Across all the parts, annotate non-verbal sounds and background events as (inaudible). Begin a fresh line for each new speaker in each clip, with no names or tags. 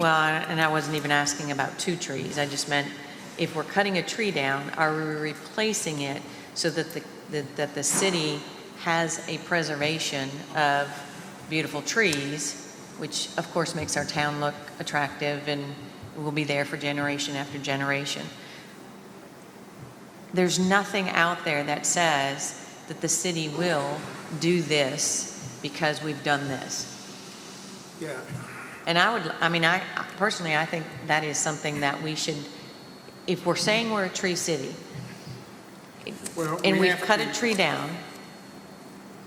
Well, I- and I wasn't even asking about two trees. I just meant, if we're cutting a tree down, are we replacing it so that the, that- that the city has a preservation of beautiful trees, which of course makes our town look attractive and will be there for generation after generation? There's nothing out there that says that the city will do this because we've done this.
Yeah,
And I would, I mean, I, personally, I think that is something that we should, if we're saying we're a tree city,
well.
and
we
we've
have
cut a
to-
tree down,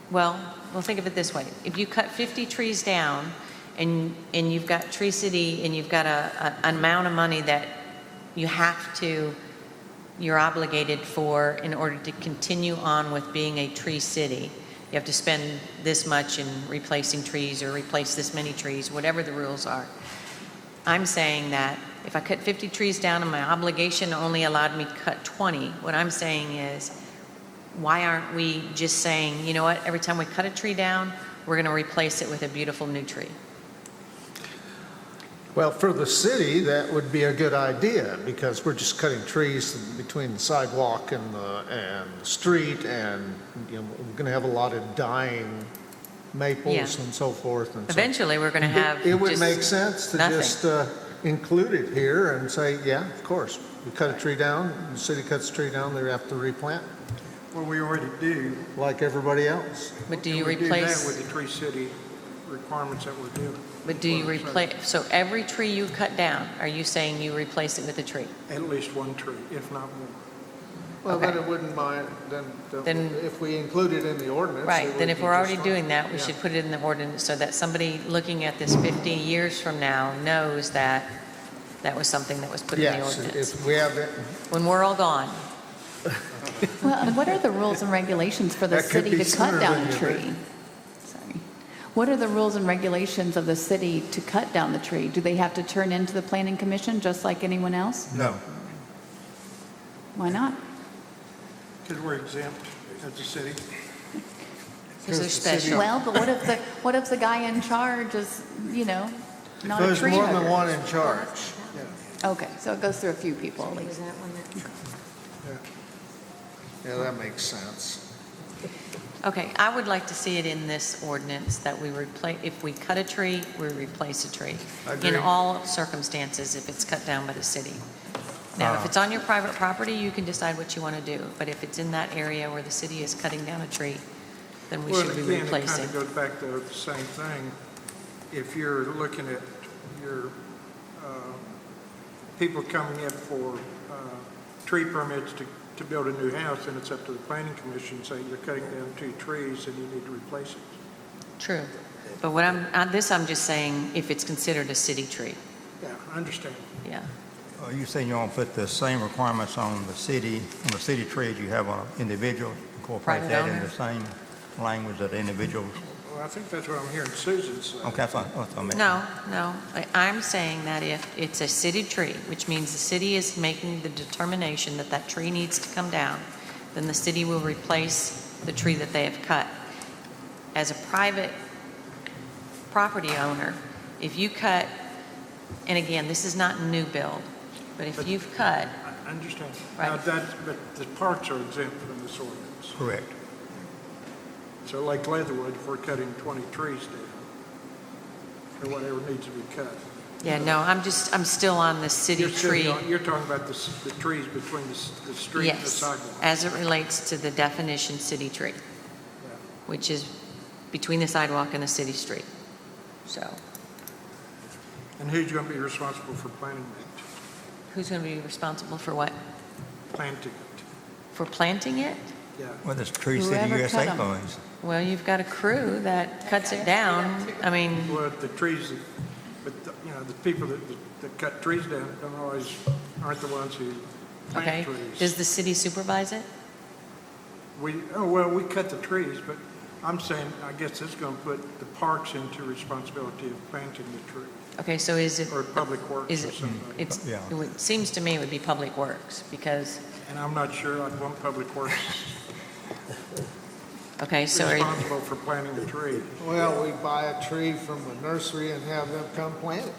well, well, think of it this way. If you cut 50 trees down and, and you've got Tree City and you've got a, a- an amount of money that you have to, you're obligated for in order to continue on with being a tree city, you have to spend this much in replacing trees or replace this many trees, whatever the rules are. I'm saying that if I cut 50 trees down and my obligation only allowed me to cut 20, what I'm saying is, why aren't we just saying, you know what, every time we cut a tree down, we're going to replace it with a beautiful new tree?
Well, for the city, that would be a good idea, because we're just cutting trees between the sidewalk and the, and the street, and, you know, we're gonna have a lot of dying maples
Yeah.
and so forth and so.
Eventually, we're going to have.
It- It would
just
make sense to
nothing.
just uh, include it here and say, yeah, of course, we cut a tree down, the city cuts a tree down, they have to replant,
Well, we already do.
like everybody else.
But do
And
you
we that
replace,
with the Tree City requirements that we're doing.
but do you
Well, so
replace, so every tree you cut down, are you saying you replace it with a tree?
At least one tree, if not more.
Well,
Okay.
then it wouldn't mind, then, then
Then-
if we include it in the ordinance.
Right,
it
then
would
if
be
we're
just
already
fine.
doing that, we
Yeah.
should put it in the ordinance so that somebody looking at this 50 years from now knows that that was something that was put in the
Yes,
ordinance.
if we have it,
When we're all gone.
Well, and what are the rules and regulations for the
That could
city
be
to cut
sooner
down
than
a
you
tree? Sorry. What are the rules and regulations of the city to cut down the tree? Do they have to turn into the planning commission just like anyone else?
no.
Why not?
Because we're exempt as a city.
Because they're special.
Well, but what if the, what if the guy in charge is, you know, not a
There's
tree
more than
hugger?
one in charge.
Okay, so it goes through a few people at least.
Yeah, that makes sense.
Okay, I would like to see it in this ordinance that we replace, if we cut a tree, we replace a tree. In
Agreed.
all circumstances, if it's cut down by the city. Now,
Uh.
if
Ah.
it's on your private property, you can decide what you want to do, but if it's in that area where the city is cutting down a tree, then we
Well,
should be
again, It kind
replacing.
of goes back to the same thing. If you're looking at your, uh, people coming in for uh, tree permits to, to build a new house, and it's up to the planning commission, saying you're cutting down two trees and you need to replace it.
True. But what I'm, on this, I'm just saying if it's considered a city tree,
Yeah, I understand.
yeah.
Are Uh, you saying you want to put the same requirements on the city, on the city trade you have on individual? Incorporate
Private
that in
owner?
the same language that individuals?
Well, I think that's what I'm hearing Susan say.
Okay, that's what that's what I meant.
No, no, I- I'm saying that if it's a city tree, which means the city is making the determination that that tree needs to come down, then the city will replace the tree that they have cut. As a private property owner, if you cut, and again, this is not new build, but if
But-
you've cut,
I understand.
Right.
Now, that's, but the parks are exempt from this ordinance.
Correct.
So like Leatherwood, if we're cutting 20 trees down, or whatever needs to be cut.
yeah, no, I'm just, I'm still on the city
You're sitting
tree.
on- You're talking about the, s- the trees between the, s- the street and the
Yes,
sidewalk.
as it relates to the definition city tree, which is between the sidewalk and the city street. So
And who's going to be responsible for planting that,
who's going to be responsible for what?
planting it?
For planting it?
Yeah.
Well, this Tree City
Whoever cut
USA
'em.
funds.
Well, you've got a crew that cuts it down. I mean,
Well, the trees, that- but, the- you know, the people that, that- that cut trees down don't always, aren't the ones who
okay,
plant
does
trees.
the city supervise it?
We, oh, well, we cut the trees, but I'm saying, I guess it's going to put the parks into responsibility of planting the tree,
Okay, so is it,
or public works
is
or
it,
something.
it's,
Yeah.
it would- seems to me it would be Public Works because,
And I'm not sure I'd want public
(laughs)
works
okay, so are you-
responsible for planting the tree.
Well, we buy a tree from a nursery and have them come plant it.